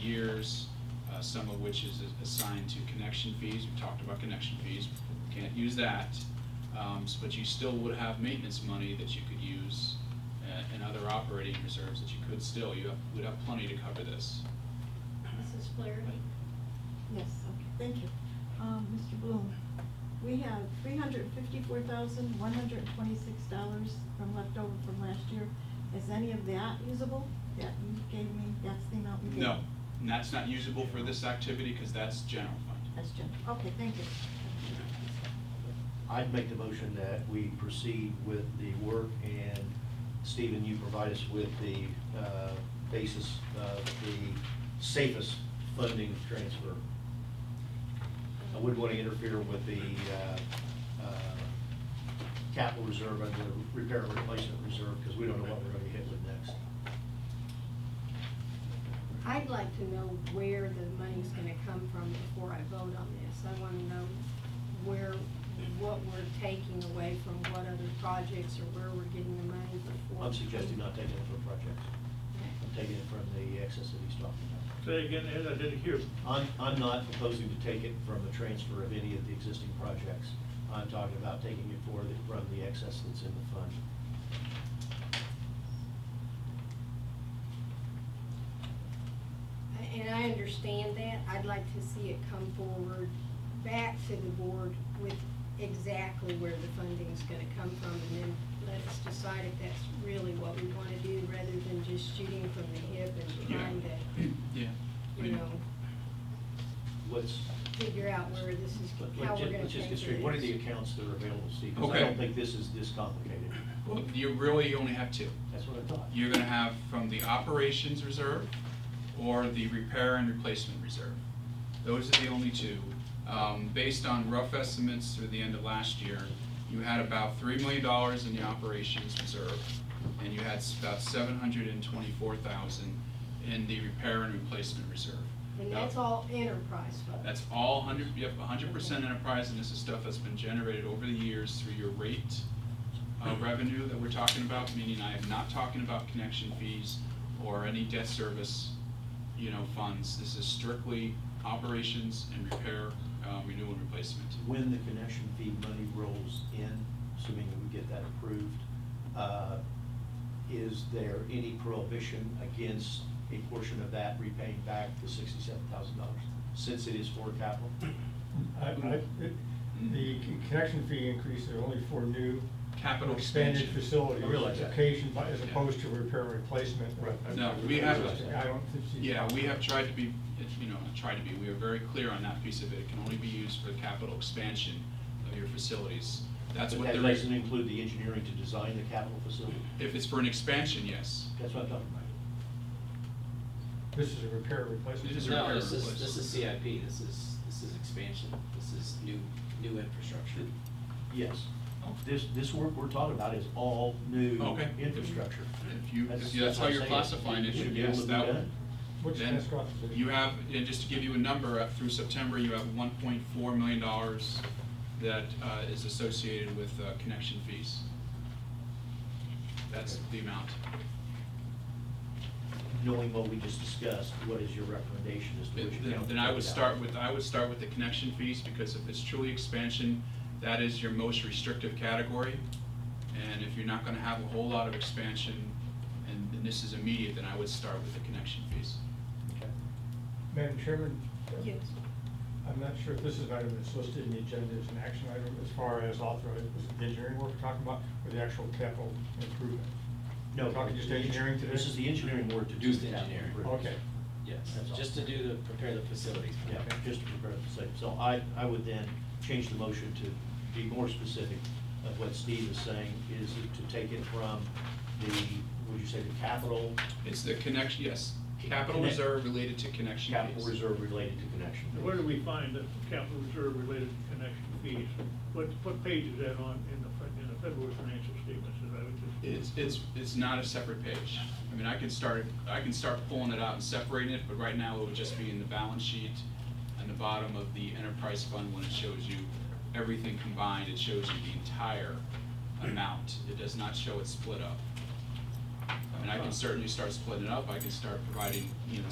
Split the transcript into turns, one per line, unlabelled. years, uh, some of which is assigned to connection fees. We've talked about connection fees, can't use that. Um, s- But you still would have maintenance money that you could use a- and other operating reserves that you could still, you have- would have plenty to cover this.
Mrs. Flaherty?
Yes, okay, thank you. Um, Mr. Bloom, we have three hundred fifty-four thousand, one hundred twenty-six dollars from leftover from last year. Is any of that usable? That you gave me, that's the amount we gave?
No, and that's not usable for this activity because that's general fund.
That's just, okay, thank you.
I'd make the motion that we proceed with the work, and Stephen, you provide us with the uh, basis of the safest funding transfer. I wouldn't want to interfere with the uh, uh, capital reserve and the repair and replacement reserve, because we don't know what we're going to hit with next.
I'd like to know where the money's gonna come from before I vote on this. I wanna know where, what we're taking away from what other projects or where we're getting the money before.
I'm suggesting not taking it from projects, I'm taking it from the excess that he's talking about.
Say again, Ed, I didn't hear.
I'm, I'm not proposing to take it from the transfer of any of the existing projects. I'm talking about taking it for the, from the excess that's in the fund.
I- And I understand that. I'd like to see it come forward back to the board with exactly where the funding's gonna come from and then let us decide if that's really what we wanna do rather than just shooting from the hip and trying to,
Yeah.
you know,
Let's,
figure out where this is,
let-
how
let's
we're
ju-
gonna
let's just get
pay
straight,
for
what are the
this.
accounts that are available, Steve? 'Cause I
Okay.
don't think this is this complicated.
Well, you really only have two.
That's what I thought.
You're gonna have from the operations reserve or the repair and replacement reserve. Those are the only two. Um, based on rough estimates through the end of last year, you had about three million dollars in the operations reserve, and you had s- about seven hundred and twenty-four thousand in the repair and replacement reserve.
And that's
Now,
all enterprise funds.
That's all hundred, you have hundred percent enterprise, and this is stuff that's been generated over the years through your rate uh,
Hmm.
revenue that we're talking about, meaning I am not talking about connection fees or any debt service, you know, funds. This is strictly operations and repair, uh, renewal and replacement.
When the connection fee money rolls in, assuming that we get that approved, uh, is there any prohibition against a portion of that repaying back the sixty-seven thousand dollars, since it is for capital?
I, I, it- the connection fee increases are only for new.
Capital
Expanded
expansion.
facilities.
I realize that.
Occasion, by- as
Yeah.
opposed to repair and replacement.
Right.
No, we have-
I don't see.
Yeah, we have tried to be, you know, not tried to be, we are very clear on that piece of it. It can only be used for capital expansion of your facilities. That's
But
what
That
they're.
doesn't include the engineering to design the capital facility.
If it's for an expansion, yes.
That's what I'm talking about.
This is a repair and replacement.
This is a repair
No,
and
this is,
replace.
this is CIP, this is, this is expansion, this is new, new infrastructure.
Yes. This, this work we're talking about is all new
Okay.
infrastructure.
If you, if you- that's how
what I'm
you're
saying.
classifying it,
We should be able
yes,
to do
that
that.
would.
What's
Then
task office?
You have, and just to give you a number, uh, through September, you have one point four million dollars that uh, is associated with uh, connection fees. That's the amount.
Knowing what we just discussed, what is your recommendation as to which
Then
account?
then
to
I
take
would
out?
start with, I would start with the connection fees, because if it's truly expansion, that is your most restrictive category. And if you're not gonna have a whole lot of expansion, and and this is immediate, then I would start with the connection fees.
Okay.
Madam Chairman?
Yes.
I'm not sure if this is an item that's listed in the agenda as an action item as far as authorized, is it the engineering work we're talking about or the actual capital improvement?
No.
Talking just
the eng-
engineering today?
This is the engineering work to do
Just
the capital
engineering.
improvements.
Okay.
Yes,
That's all.
just to do the, prepare the facilities. for
Yeah,
that.
just to prepare the same. So I, I would then change the motion to be more specific of what Steve is saying, is to take it from the, would you say the capital,
It's the connection, yes, capital
Connect-
reserve related to connection fees.
capital reserve related to connection?
Where do we find the capital reserve related to connection fees? What, what page is that on in the, fin- in the February financial statements? Is that what you-
It's, it's, it's not a separate page. I mean, I can start, I can start pulling it out and separating it, but right now it would just be in the balance sheet and the bottom of the enterprise fund when it shows you everything combined, it shows you the entire amount. It does not show it split up. I mean, I can certainly start splitting it up, I can start providing, you know,